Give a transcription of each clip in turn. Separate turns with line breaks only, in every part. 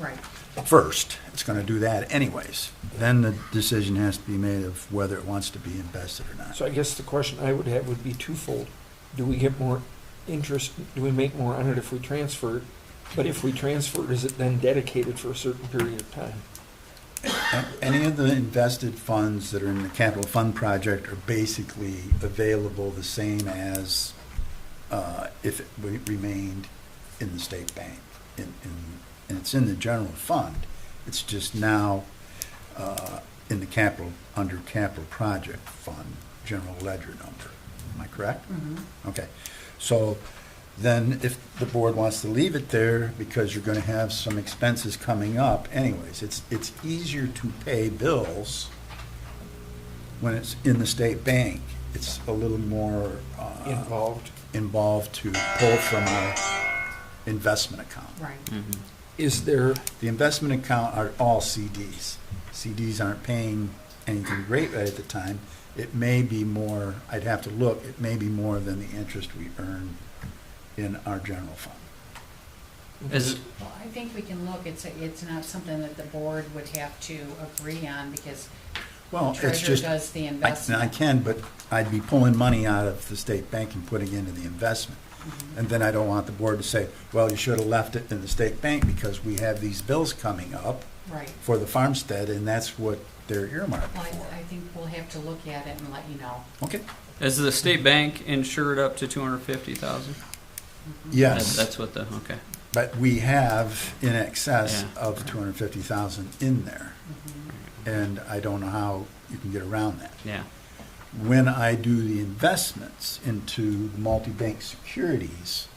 Right.
first. It's going to do that anyways. Then the decision has to be made of whether it wants to be invested or not.
So I guess the question I would have would be twofold. Do we get more interest, do we make more on it if we transfer it? But if we transfer it, is it then dedicated for a certain period of time?
A- Any of the invested funds that are in the capital fund project are basically available the same as uh, if it re- remained in the state bank. In- in- And it's in the general fund. It's just now uh, in the capital, under capital project fund, general ledger number. Am I correct? Okay, so then if the board wants to leave it there, because you're gonna have some expenses coming up anyways, it's, it's easier to pay bills when it's in the state bank. It's a little more, uh,
Involved?
involved to pull from our investment account.
Right.
Hmm. Is there,
The investment account are all CDs. CDs aren't paying anything great right at the time. It may be more, I'd have to look, it may be more than the interest we earn in our general fund.
Is,
Well, I think we can look, it's, it's not something that the board would have to agree on because the
Well, it's
treasurer
just, I
does the
I
investment.
can, but I'd be pulling money out of the state bank and putting into the investment.
Mm-hmm.
And then I don't want the board to say, well, you should have left it in the state bank because we have these bills coming up
Right.
for the farmstead, and that's what they're earmarked
Well, I,
for.
I think we'll have to look at it and let you know.
Okay,
is the state bank insured up to two hundred fifty thousand?
yes.
That's what the, okay.
But we have in excess
Yeah.
of two hundred fifty thousand in there, and I don't know how you can get around that.
Yeah,
When I do the investments into multi-bank securities,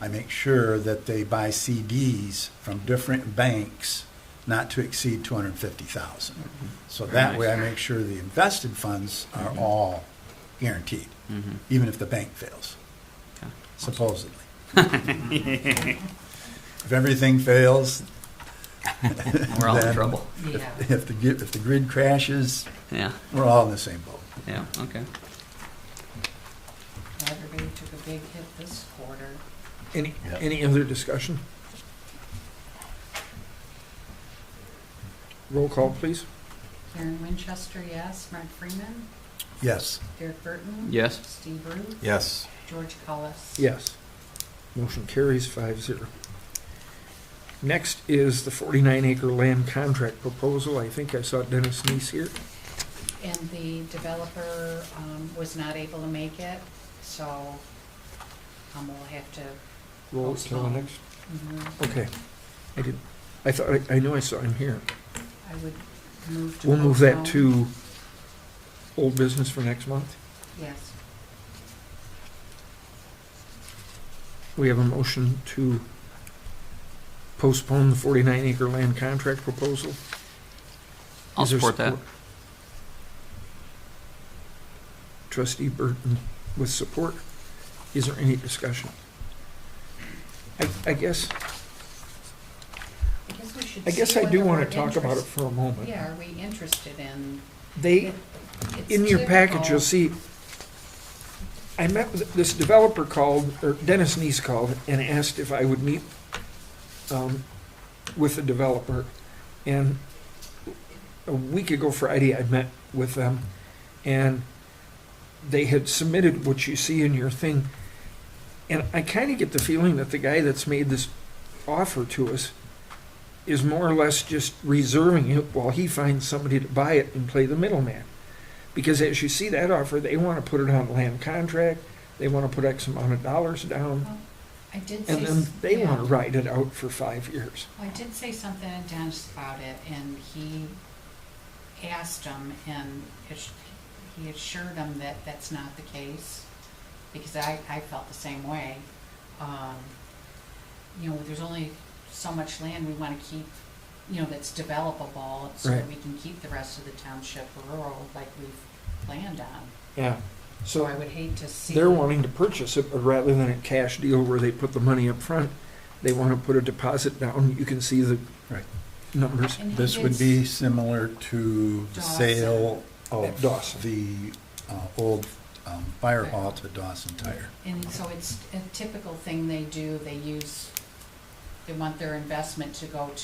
I make sure that they buy CDs from different banks not to exceed two hundred fifty thousand.
Mm-hmm.
So that way I make sure the invested funds are all guaranteed,
mm-hmm.
even if the bank fails
okay.
supposedly. if everything fails,
We're all in
then
trouble.
Yeah.
If, if the gi- if the grid crashes,
Yeah,
we're all in the same boat.
yeah, okay.
Everybody took a big hit this quarter.
any, any other discussion? Roll call, please.
Karen Winchester, yes. Mark Freeman,
Yes.
Derek Burton.
Yes.
Steve Ruth,
Yes.
George Cullis.
Yes. Motion carries five zero. Next is the forty-nine acre land contract proposal. I think I saw Dennis Neese here.
And the developer um, was not able to make it, so um, we'll have to.
Roll till the
Postpone.
next
mhm.
Okay, I did, I thought, I- I knew I saw him here.
I would move to.
We'll move that
postpone.
to old business for next month.
Yes.
We have a motion to postpone the 49 acre land contract proposal.
I'll
Is there
support that.
Trustee Burton with support. Is there any discussion? I, I guess,
I guess we should.
I guess
see
I do
whether
want
we're
to talk about it
interest-
for a moment.
Yeah, are we interested in?
They,
it- it's
in your package,
typical-
you'll see, I met, with- this developer called, or Dennis Neese called and asked if I would meet um, with the developer. And a week ago Friday, I met with them and they had submitted what you see in your thing. And I kind of get the feeling that the guy that's made this offer to us is more or less just reserving it while he finds somebody to buy it and play the middleman. Because as you see that offer, they want to put it on land contract, they want to put X amount of dollars down,
I did say.
and then
s-
they
yeah.
want to ride it out for five years.
I did say something to Dennis about it, and he asked him, and ass- he assured him that that's not the case, because I, I felt the same way. Um, You know, there's only so much land we want to keep, you know, that's developable, so that
Right.
we can keep the rest of the township rural like we've planned on.
Yeah.
So
So
I would hate to see.
they're wanting to purchase it, but rather than a cash deal where they put the money up front, they want to put a deposit down. You can see the
Right.
numbers.
And he
This
did
would be similar to the
Dawson.
sale
At
of
Dawson.
the uh, old um, fire hall to Dawson Tire.
And so it's a typical thing they do, they use, they want their investment to go to